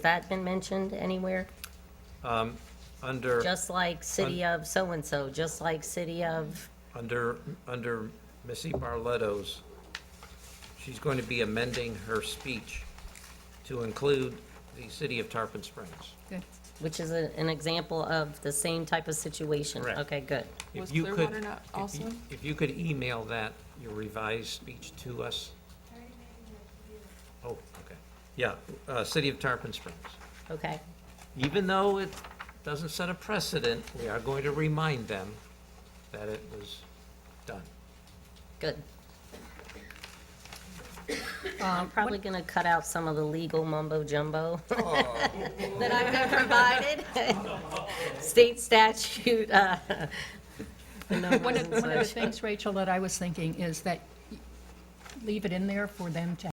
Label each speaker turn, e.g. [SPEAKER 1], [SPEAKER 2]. [SPEAKER 1] that been mentioned anywhere?
[SPEAKER 2] Under,
[SPEAKER 1] Just like city of so-and-so, just like city of,
[SPEAKER 2] under, under Missy Barletto's, she's going to be amending her speech to include the city of Tarpon Springs.
[SPEAKER 3] Good.
[SPEAKER 1] which is a- an example of the same type of situation?
[SPEAKER 2] Correct.
[SPEAKER 1] Okay, good.
[SPEAKER 2] If
[SPEAKER 4] Was
[SPEAKER 2] you could-
[SPEAKER 4] Clearwater not
[SPEAKER 2] if you-
[SPEAKER 4] also?
[SPEAKER 2] If you could email that, your revised speech to us. Oh, okay. Yeah, uh, city of Tarpon Springs.
[SPEAKER 1] Okay,
[SPEAKER 2] Even though it doesn't set a precedent, we are going to remind them that it was done.
[SPEAKER 1] good. I'm probably going to cut out some of the legal mumbo jumbo that I've been provided. State statute, uh, the
[SPEAKER 3] One
[SPEAKER 1] numbers
[SPEAKER 3] of, one of the
[SPEAKER 1] and such.
[SPEAKER 3] things, Rachel, that I was thinking is that leave it in there for them to